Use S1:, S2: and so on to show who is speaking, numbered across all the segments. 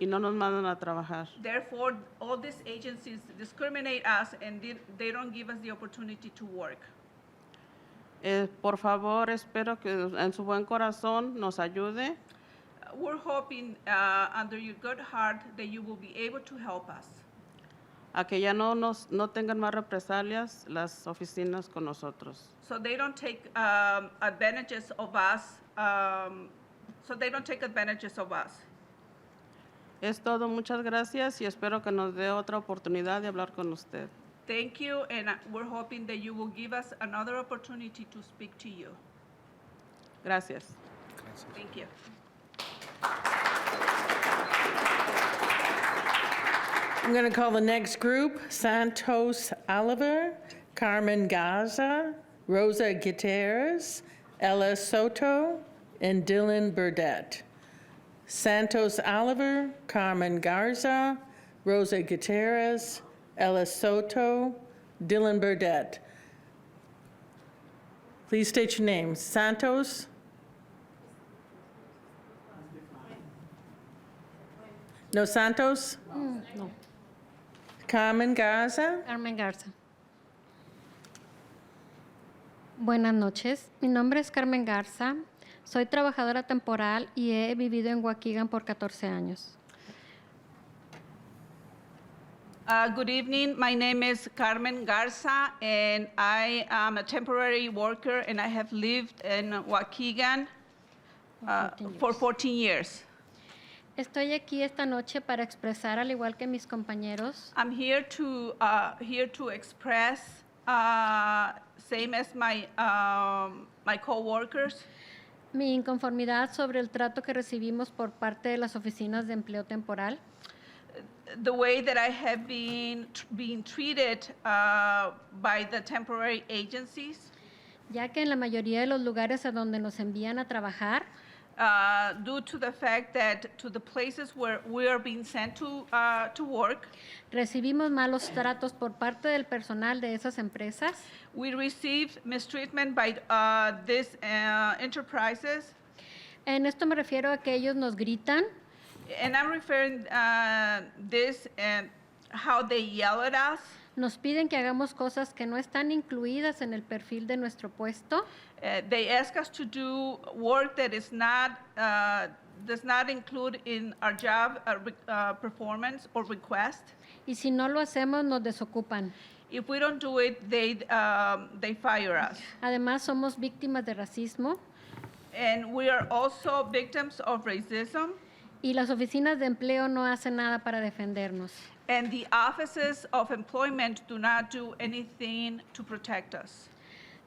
S1: y no nos mandan a trabajar.
S2: Therefore, all these agencies discriminate us and they, they don't give us the opportunity to work.
S1: Eh, por favor, espero que en su buen corazón nos ayude
S2: Uh, We're hoping, uh, under your good heart, that you will be able to help us,
S1: a que ya no, nos, no tengan más represalias las oficinas con nosotros.
S2: so they don't take um, advantages of us, um, so they don't take advantages of us.
S1: Es todo, muchas gracias y espero que nos dé otra oportunidad de hablar con usted.
S2: Thank you, and uh, we're hoping that you will give us another opportunity to speak to you.
S1: Gracias.
S2: Thank you.
S3: I'm going to call the next group, Santos Oliver, Carmen Gaza, Rosa Gutierrez, Ella Soto, and Dylan Burdette. Santos Oliver, Carmen Garza, Rosa Gutierrez, Ella Soto, Dylan Burdette. Please state your names. Santos? No Santos? Carmen Garza.
S4: Carmen Garza. Buenas noches, mi nombre es Carmen Garza, soy trabajadora temporal y he vivido en Waukegan por 14 años.
S2: Uh, Good evening. My name is Carmen Garza, and I am a temporary worker, and I have lived in Waukegan uh, for 14 years.
S4: Estoy aquí esta noche para expresar, al igual que mis compañeros,
S2: I'm here to, uh, here to express, uh, same as my, um, my coworkers,
S4: mi inconformidad sobre el trato que recibimos por parte de las oficinas de empleo temporal.
S2: the way that I have been, being treated uh, by the temporary agencies,
S4: ya que en la mayoría de los lugares a donde nos envían a trabajar,
S2: uh, due to the fact that, to the places where we are being sent to, uh, to work,
S4: recibimos malos tratos por parte del personal de esas empresas
S2: We received mistreatment by uh, these uh, enterprises,
S4: En esto me refiero a que ellos nos gritan,
S2: and I'm referring uh, this and how they yell at us,
S4: nos piden que hagamos cosas que no están incluidas en el perfil de nuestro puesto,
S2: Uh, they ask us to do work that is not uh, does not include in our job uh, re- uh, performance or request.
S4: y si no lo hacemos nos desocupan.
S2: If we don't do it, they um, they fire us,
S4: Además somos víctimas de racismo
S2: and we are also victims of racism.
S4: y las oficinas de empleo no hacen nada para defendernos.
S2: And the offices of employment do not do anything to protect us.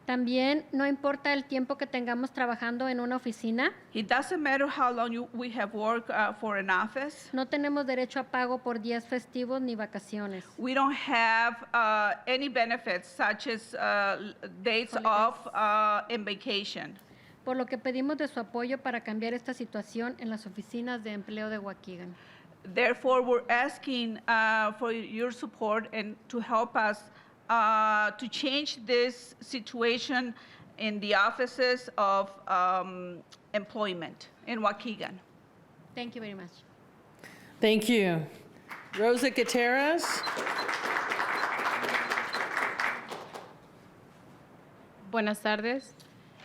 S4: También no importa el tiempo que tengamos trabajando en una oficina,
S2: It doesn't matter how long you, we have worked uh, for an office.
S4: no tenemos derecho a pago por días festivos ni vacaciones.
S2: We don't have uh, any benefits such as uh, l- days off uh, and vacation.
S4: Por lo que pedimos de su apoyo para cambiar esta situación en las oficinas de empleo de Waukegan.
S2: Therefore, we're asking uh, for your support and to help us uh, to change this situation in the offices of um, employment in Waukegan.
S4: Thank you very much.
S3: Thank you. Rosa Gutierrez.
S5: Buenas tardes,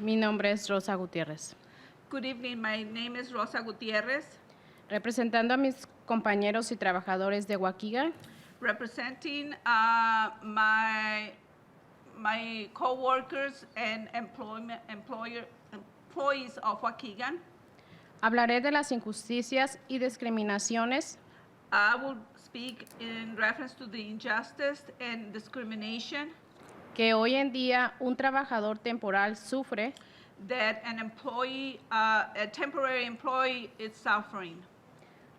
S5: mi nombre es Rosa Gutiérrez.
S2: Good evening. My name is Rosa Gutierrez,
S5: Representando a mis compañeros y trabajadores de Huaquiga,
S2: representing uh, my my coworkers and employment employer employees of Waukegan.
S5: hablaré de las injusticias y discriminaciones
S2: I will speak in reference to the injustice and discrimination
S5: que hoy en día un trabajador temporal sufre
S2: that an employee, uh, a temporary employee, is suffering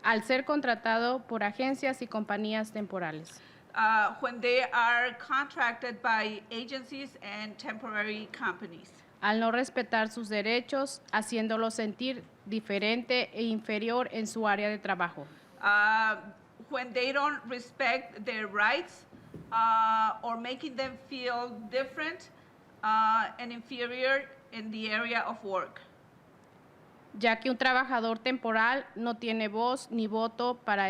S5: al ser contratado por agencias y compañías temporales.
S2: uh, when they are contracted by agencies and temporary companies.
S5: al no respetar sus derechos, haciéndolo sentir diferente e inferior en su área de trabajo.
S2: Uh, when they don't respect their rights uh, or making them feel different uh, and inferior in the area of work.
S5: ya que un trabajador temporal no tiene voz ni voto para